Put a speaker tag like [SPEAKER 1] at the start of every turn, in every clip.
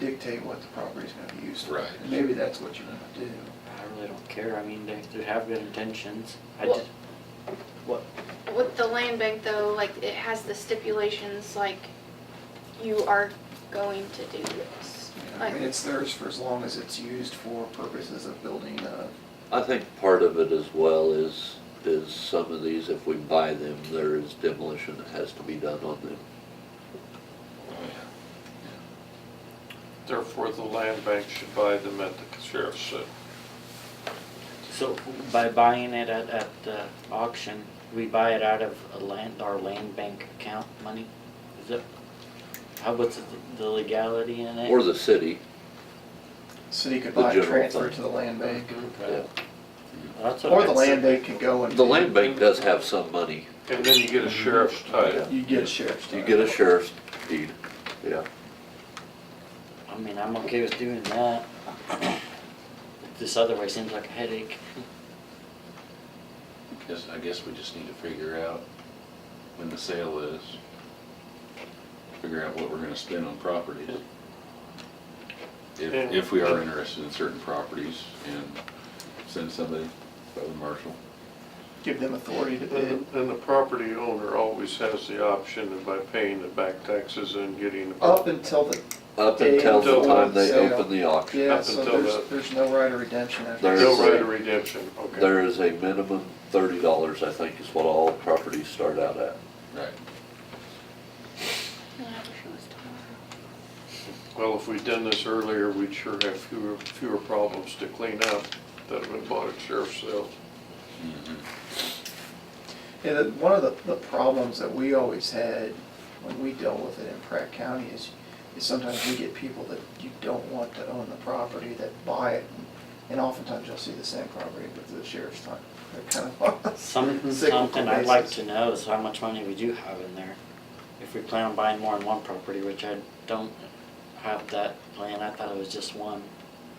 [SPEAKER 1] dictate what the property's gonna be used for.
[SPEAKER 2] Right.
[SPEAKER 1] And Maybe that's what you wanna do.
[SPEAKER 3] I really don't care, I mean, they, they have good intentions, I
[SPEAKER 4] Well-
[SPEAKER 3] just, what,
[SPEAKER 4] With the land bank though, like it has the stipulations like you are going to do this.
[SPEAKER 1] You know, I
[SPEAKER 4] Like,
[SPEAKER 1] mean, it's theirs for as long as it's used for purposes of building a
[SPEAKER 5] I think part of it as well is, is some of these, if we buy them, there is demolition that has to be done on them.
[SPEAKER 6] Therefore, the land bank should buy them at the sheriff's sale.
[SPEAKER 3] so by buying it at, at uh, auction, we buy it out of a land, our land bank account money? Is it, how, what's the- the legality in it?
[SPEAKER 5] Or the city,
[SPEAKER 1] city could
[SPEAKER 5] The
[SPEAKER 1] buy and
[SPEAKER 5] general
[SPEAKER 1] transfer
[SPEAKER 5] fund.
[SPEAKER 1] it to the land bank.
[SPEAKER 5] yeah.
[SPEAKER 3] That's what
[SPEAKER 1] Or
[SPEAKER 3] I
[SPEAKER 1] the
[SPEAKER 3] said.
[SPEAKER 1] land bank could go and.
[SPEAKER 5] The land bank does have some money.
[SPEAKER 6] And then you get a sheriff's title.
[SPEAKER 1] You get a sheriff's.
[SPEAKER 5] You get a sheriff's deed, yeah.
[SPEAKER 3] I mean, I'm okay with doing that. This other way seems like a headache.
[SPEAKER 2] Guess, I guess we just need to figure out when the sale is. Figure out what we're gonna spend on properties. If,
[SPEAKER 6] And-
[SPEAKER 2] if we are interested in certain properties and send somebody, by the marshal.
[SPEAKER 1] Give them authority to bid.
[SPEAKER 5] Mhm.
[SPEAKER 6] And and the property owner always has the option of by paying the back taxes and getting. the-
[SPEAKER 1] Up until the,
[SPEAKER 5] Up until the time they
[SPEAKER 1] Until-
[SPEAKER 5] open the auction.
[SPEAKER 1] yeah,
[SPEAKER 6] Up
[SPEAKER 1] so
[SPEAKER 6] until
[SPEAKER 1] there's,
[SPEAKER 6] the-
[SPEAKER 1] there's no right of redemption after.
[SPEAKER 5] There's-
[SPEAKER 6] No right of redemption, okay.
[SPEAKER 5] There is a minimum thirty dollars, I think, is what all properties start out at.
[SPEAKER 2] Right.
[SPEAKER 4] I wish it was tomorrow.
[SPEAKER 6] Well, if we'd done this earlier, we'd sure have fewer, fewer problems to clean up that have been bought at sheriff's sales.
[SPEAKER 1] Yeah, the, one of the, the problems that we always had when we dealt with it in Pratt County is, is sometimes we get people that you don't want to own the property that buy it. And oftentimes you'll see the same property with the sheriff's time. They're kind of. on a
[SPEAKER 3] Something,
[SPEAKER 1] cyclical
[SPEAKER 3] something I'd like
[SPEAKER 1] basis.
[SPEAKER 3] to know is how much money we do have in there. If we plan on buying more than one property, which I don't have that plan, I thought it was just one.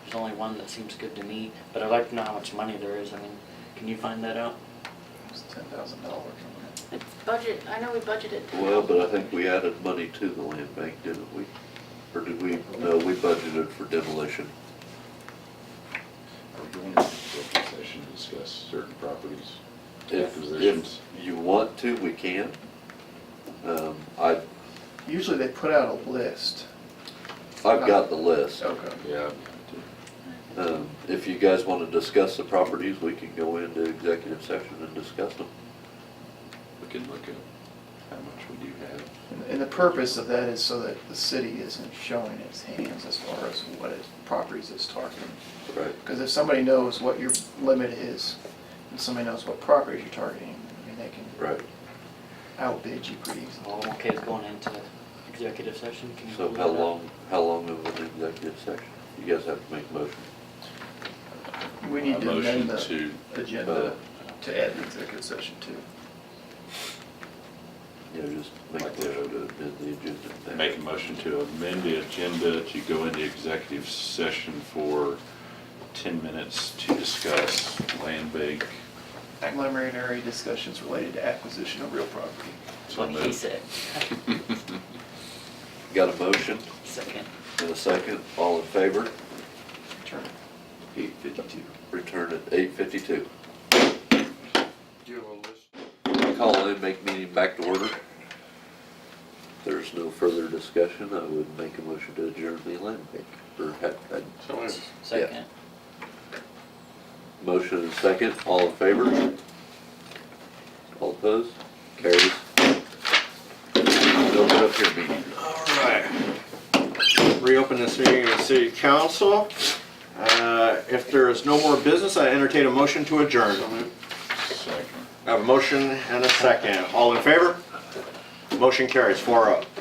[SPEAKER 3] There's only one that seems good to me, but I'd like to know how much money there is, I mean, can you find that out?
[SPEAKER 1] It's ten thousand dollars on that.
[SPEAKER 4] It's budget, I know we budgeted. that.
[SPEAKER 5] Well, but I think we added money to the land bank, didn't we? Or did we, no, we budgeted for demolition.
[SPEAKER 2] Are we going into executive session to discuss certain properties?
[SPEAKER 5] If, if
[SPEAKER 2] Acquisitions.
[SPEAKER 5] you want to, we can. Um, I,
[SPEAKER 1] Usually they put out a list.
[SPEAKER 5] I've got the list.
[SPEAKER 1] Okay.
[SPEAKER 2] Yeah.
[SPEAKER 5] Um, if you guys wanna discuss the properties, we can go into executive session and discuss them.
[SPEAKER 2] We can look at how much we do have.
[SPEAKER 1] And- And the purpose of that is so that the city isn't showing its hands as far as what its properties it's targeting.
[SPEAKER 5] Right.
[SPEAKER 1] Because if somebody knows what your limit is, and somebody knows what properties you're targeting, I mean, they can
[SPEAKER 5] Right,
[SPEAKER 1] outbid you pretty easily.
[SPEAKER 3] Well, I'm okay with going into executive session, can you?
[SPEAKER 5] so
[SPEAKER 3] look
[SPEAKER 5] how
[SPEAKER 3] that up?
[SPEAKER 5] long, how long of an executive session? You guys have to make a motion.
[SPEAKER 1] We need to
[SPEAKER 2] Motion
[SPEAKER 1] amend
[SPEAKER 2] to-
[SPEAKER 1] the agenda to add the executive session too.
[SPEAKER 5] You know, just make
[SPEAKER 2] Like
[SPEAKER 5] a
[SPEAKER 2] the-
[SPEAKER 5] motion to amend the agenda.
[SPEAKER 2] Make a motion to amend the agenda to go into executive session for 10 minutes to discuss land bank.
[SPEAKER 1] Preliminary discussions related to acquisition of real property.
[SPEAKER 2] So
[SPEAKER 3] What he
[SPEAKER 2] moved.
[SPEAKER 3] said,
[SPEAKER 5] Got a motion
[SPEAKER 3] second.
[SPEAKER 5] and a second, all in favor?
[SPEAKER 1] Turn
[SPEAKER 5] Eight fifty-two. Return at eight fifty-two.
[SPEAKER 6] Do you have a list?
[SPEAKER 5] Call in, make meeting back to order. If There's no further discussion, I would make a motion to adjourn the land bank, or uh, had, had
[SPEAKER 6] So anyway.
[SPEAKER 3] Second.
[SPEAKER 5] Motion and second, all in favor? All opposed? Carries. Open up your meeting.
[SPEAKER 7] All right. Reopen this meeting of the city council. Uh, If there is no more business, I entertain a motion to adjourn.
[SPEAKER 2] Second.
[SPEAKER 7] I have a motion and a second. All in favor? Motion carries four oh.